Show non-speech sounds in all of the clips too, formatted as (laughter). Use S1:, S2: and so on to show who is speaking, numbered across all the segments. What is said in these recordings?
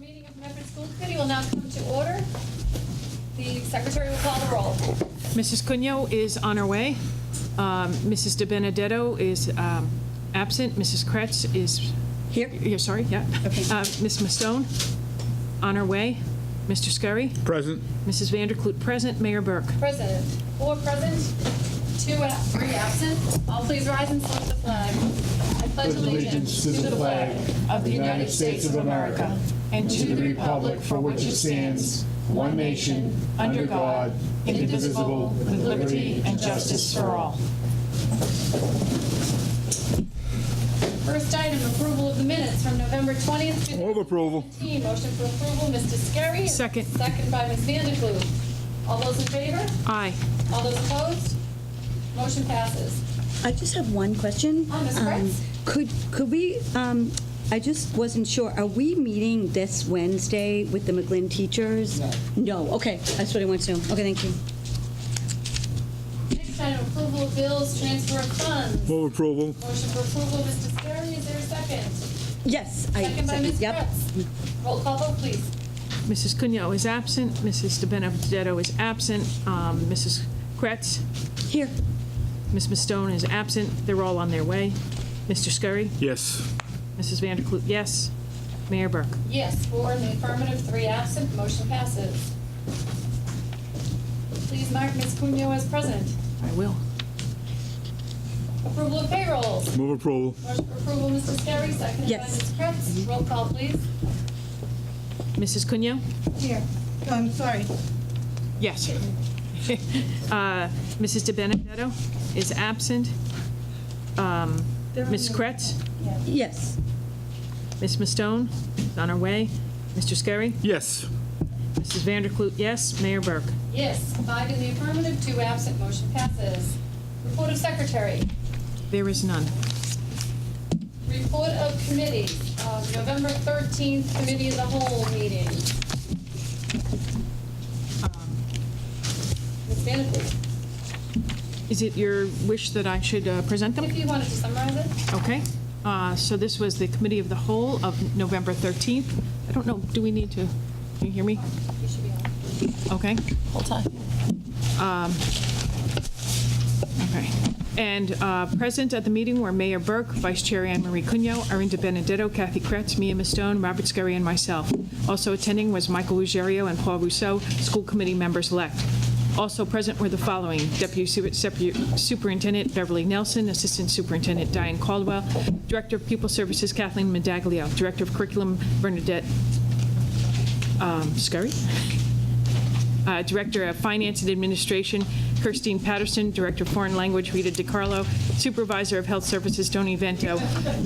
S1: Concord School Committee will now come to order. The secretary will call the roll.
S2: Mrs. Cunyo is on her way. Um, Mrs. De Benedetto is um, absent. Mrs. Kretz is...
S3: Here.
S2: Yeah, sorry, yeah.
S3: Okay.
S2: Uh, Ms. Mastone, on her way. Mr. Scurry,
S4: Present.
S2: Mrs. Vanderklut present, Mayor Burke.
S1: President, four present, two and three absent. All please rise and salute the flag. I pledge allegiance to the flag of the United States of America and to the republic for which it stands, one nation, under God, indivisible, with liberty and justice for all. First item, approval of the minutes from November 20th, to
S4: Move approval.
S1: 2019. Motion for approval, Mr. Scarry.
S2: Second.
S1: Second by Ms. Vanderklut. All those in favor?
S2: Aye.
S1: All those opposed? Motion passes.
S3: I just have one question.
S1: Oh, Ms.
S3: Um,
S1: Prince?
S3: Could, could we, um, I just wasn't sure, are we meeting this Wednesday with the McGlynn teachers? No. okay, that's what I wanted to know. Okay, thank you.
S1: Next item, approval of bills, transfer of funds.
S4: Move approval.
S1: Motion for approval, Mr. Scarry, is there a second?
S3: Yes. I
S1: Second by Ms.
S3: Yep.
S1: Prince. Roll call vote, please.
S2: Mrs. Cunyo is absent. Mrs. De Benedetto is absent. Um, Mrs. Kretz,
S3: Here.
S2: Ms. Mastone is absent. They're all on their way. Mr. Scurry,
S4: Yes.
S2: Mrs. Vanderklut, yes. Mayor Burke.
S1: Yes, four in the affirmative, three absent, motion passes. Please mark Ms. Cunyo as present.
S2: I will.
S1: Approval of payrolls.
S4: Move approval.
S1: Motion for approval, Mr. Scarry, seconded by
S3: Yes.
S1: Ms. Prince. Roll call, please.
S2: Mrs. Cunyo?
S5: Here, No, I'm sorry.
S2: Yes. (laughs) Uh, Mrs. De Benedetto is absent. Um, Ms. Kretz,
S3: Yes.
S2: Ms. Mastone is on her way. Mr. Scarry,
S4: Yes.
S2: Mrs. Vanderklut, yes. Mayor Burke.
S1: Yes, five in the affirmative, two absent, motion passes. Report of secretary.
S2: There is none.
S1: Report of committee, uh, November 13th, committee of the whole meeting. Ms. Vanderpool,
S2: Is it your wish that I should uh, present them?
S1: if you wanted to summarize it,
S2: Okay, uh, so this was the Committee of the Whole of November 13th. I don't know, do we need to, can you hear me?
S1: you should be on.
S2: Okay. Hold on. Okay. And uh, present at the meeting were Mayor Burke, Vice Chair Anne Marie Cunyo, Arinda Benedetto, Kathy Kretz, Mia Mastone, Robert Scurry, and myself. Also attending was Michael Ruggiero and Paul Rousseau, school committee members-elect. Also present were the following: Deputy Su- Sepu- Superintendent Beverly Nelson, Assistant Superintendent Diane Caldwell, Director of Pupil Services Kathleen Medaglio, Director of Curriculum Bernadette um, Scurry, uh, Director of Finance and Administration, Kirstine Patterson, Director of Foreign Language, Rita DiCarlo, Supervisor of Health Services, Tony Vento,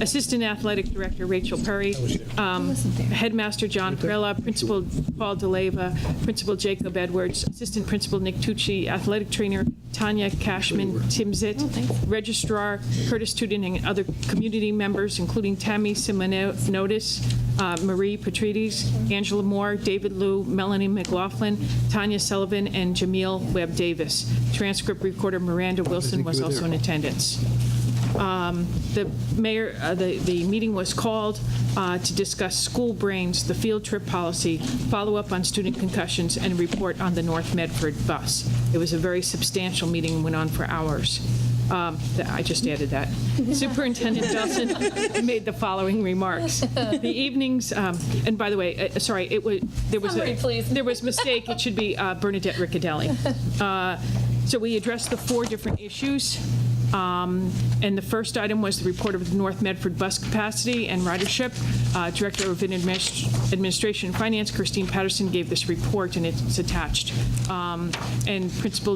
S2: Assistant Athletic Director, Rachel Perry, um, Headmaster John Perella, Principal Paul DeLeva, Principal Jacob Edwards, Assistant Principal Nick Tucci, Athletic Trainer Tanya Cashman, Tim Zitt, Registrar Curtis Tudin, and other community members, including Tammy Simonotis, uh, Marie Patrides, Angela Moore, David Liu, Melanie McLaughlin, Tanya Sullivan, and Jamil Webb Davis. Transcript recorder Miranda Wilson was also in attendance. Um, The mayor, uh, the, the meeting was called uh, to discuss school brains, the field trip policy, follow-up on student concussions, and report on the North Medford bus. It was a very substantial meeting, and went on for hours. Um, th- I just
S1: (laughs)
S2: added that. Superintendent Nelson made the following remarks. The evenings, um, and by the way, uh, sorry, it was, there was. a-
S1: Summary, please.
S2: There was mistake, it should be uh, Bernadette Riccadelli. Uh, So we addressed the four different issues. Um, And the first item was the report of the North Medford bus capacity and ridership. Uh, Director of Adminis- Administration and Finance, Christine Patterson, gave this report, and it's attached. Um, And Principal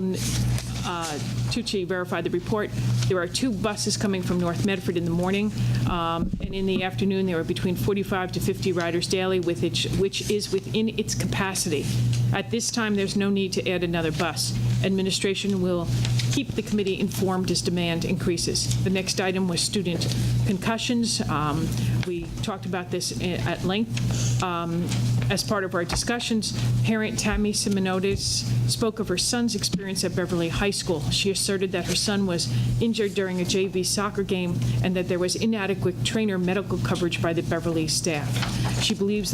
S2: uh, Tucci verified the report. There are two buses coming from North Medford in the morning, um, and in the afternoon, there are between 45 to 50 riders daily, with each- which is within its capacity. At this time, there's no need to add another bus. Administration will keep the committee informed as demand increases. The next item was student concussions. Um, We talked about this i- at length. Um, as part of our discussions, parent Tammy Simonides spoke of her son's experience at Beverly High School. She asserted that her son was injured during a JV soccer game and that there was inadequate trainer medical coverage by the Beverly staff. She believes